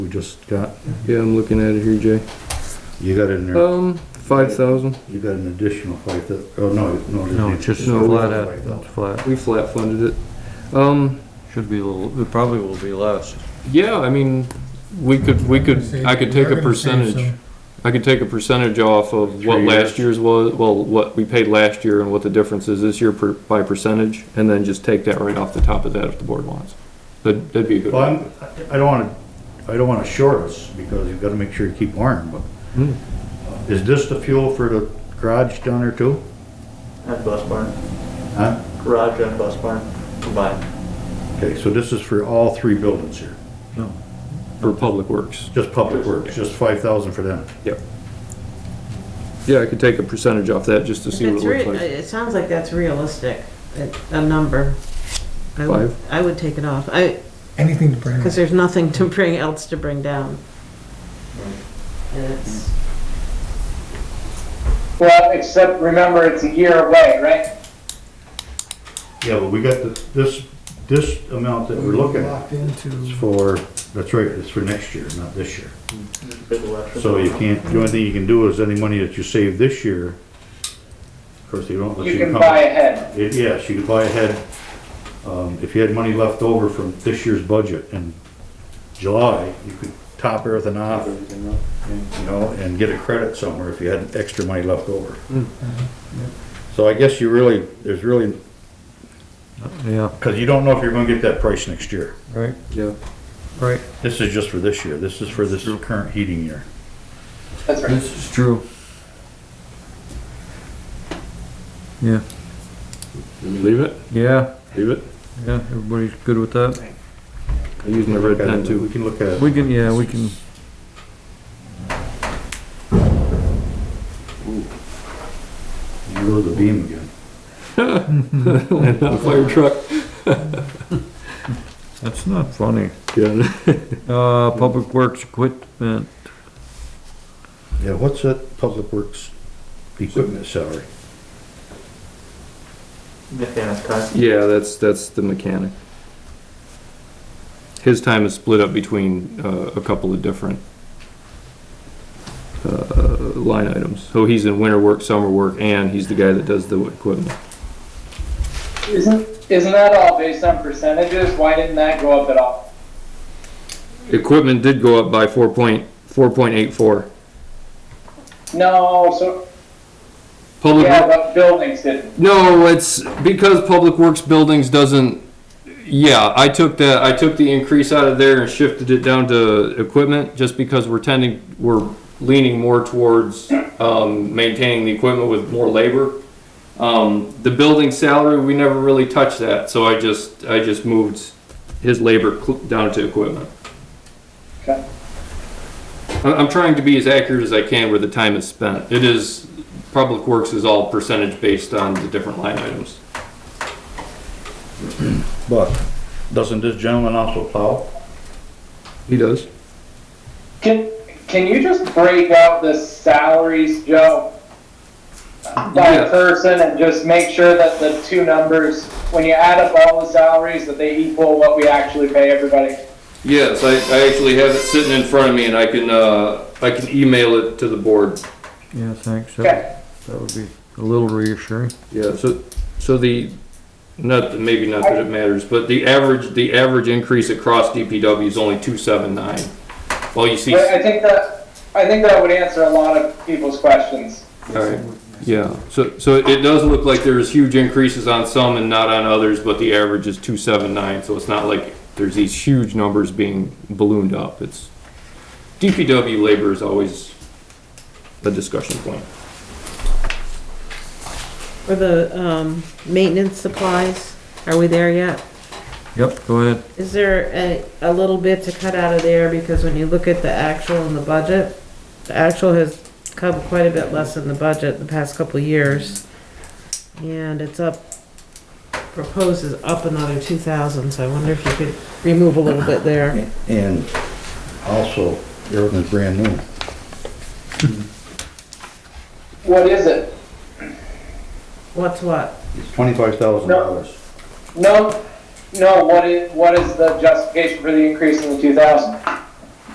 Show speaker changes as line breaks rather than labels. just got.
Yeah, I'm looking at it here, Jay.
You got in there,
Um, five thousand.
you got an additional five thou, oh, no, no. there's
No,
an
it's just
additional
flat
five
out,
thousand.
it's flat.
We flat funded it. Um,
Should be a little, it probably will be less.
yeah, I mean, we could, we could, I could take a percentage. I could take a percentage off of what
Three
last year's was, well, what we paid last year and what the difference is this year per, by percentage, and then just take that right off the top of that if the board wants. That, that'd be a good.
Well, I'm, I don't wanna, I don't wanna short us, because you've gotta make sure you keep wiring, but. uh,
Hmm.
Is this the fuel for the garage down there too?
And bus barn,
Huh?
garage and bus barn combined.
Okay, so this is for all three buildings here,
For public works.
just public works, just five thousand for them.
Yeah, I could take a percentage off that just to see what
That's
it looks
rea-
like.
It sounds like that's realistic, a- a number. I would-
Five?
I would take it off, I,
Anything to bring.
because there's nothing to bring, else to bring down. And it's,
Well, except remember, it's a year away, right?
Yeah, but we got the, this, this amount that we're looking at
Locked into.
is for, that's right, it's for next year, not this year.
Big election.
So you can't, the only thing you can do is any money that you save this year, of course, they don't let you
You
come.
can buy ahead.
It- Yes, you could buy ahead, um, if you had money left over from this year's budget in July, you could top everything off, you know, and get a credit somewhere if you had extra money left over. So I guess you really, there's really,
Yeah,
because you don't know if you're gonna get that price next year.
right,
Yeah.
right.
This is just for this year, this is for this current heating year.
That's right.
This is true. Yeah,
Leave it,
yeah,
leave it.
yeah, everybody's good with that.
I'm using the red pen too.
We can look at,
We can, yeah, we can.
you go to the beam again.
And a fire truck.
That's not funny.
Yeah.
Uh, public works equipment,
Yeah, what's that public works equipment salary?
Mechanic car.
Yeah, that's, that's the mechanic. His time is split up between, uh, a couple of different, uh, line items. So he's in winter work, summer work, and he's the guy that does the equipment.
Isn't, isn't that all based on percentages? Why didn't that go up at all?
Equipment did go up by four point, four point eight four.
No, so,
Public,
yeah, but buildings didn't.
no, it's because Public Works Buildings doesn't, yeah, I took that, I took the increase out of there and shifted it down to equipment, just because we're tending, we're leaning more towards, um, maintaining the equipment with more labor. Um, the building salary, we never really touched that, so I just, I just moved his labor cl- down to equipment.
Okay.
I'm, I'm trying to be as accurate as I can where the time is spent. It is, Public Works is all percentage based on the different line items.
But doesn't this gentleman also plow?
He does.
Can, can you just break out the salaries, Joe? By
Yeah.
person and just make sure that the two numbers, when you add up all the salaries, that they equal what we actually pay everybody?
Yes, I, I actually have it sitting in front of me and I can, uh, I can email it to the board.
yeah, thanks, that
Okay,
that would be a little reassuring.
Yeah, so, so the, not, maybe not that it matters, but the average, the average increase across DPW is only two seven nine. Well, you see,
but I think that, I think that would answer a lot of people's questions.
alright, yeah, so, so it does look like there's huge increases on some and not on others, but the average is two seven nine, so it's not like there's these huge numbers being ballooned up, it's, DPW labor is always a discussion point.
or the, um, maintenance supplies, are we there yet?
Yep, go ahead.
Is there a, a little bit to cut out of there, because when you look at the actual and the budget, the actual has come quite a bit less than the budget the past couple of years. And it's up, proposed is up another two thousand, so I wonder if you could remove a little bit there.
And also, everything's brand new.
What is it?
What's what?
It's twenty-five thousand dollars.
No, no, what is, what is the justification for the increase in the two thousand?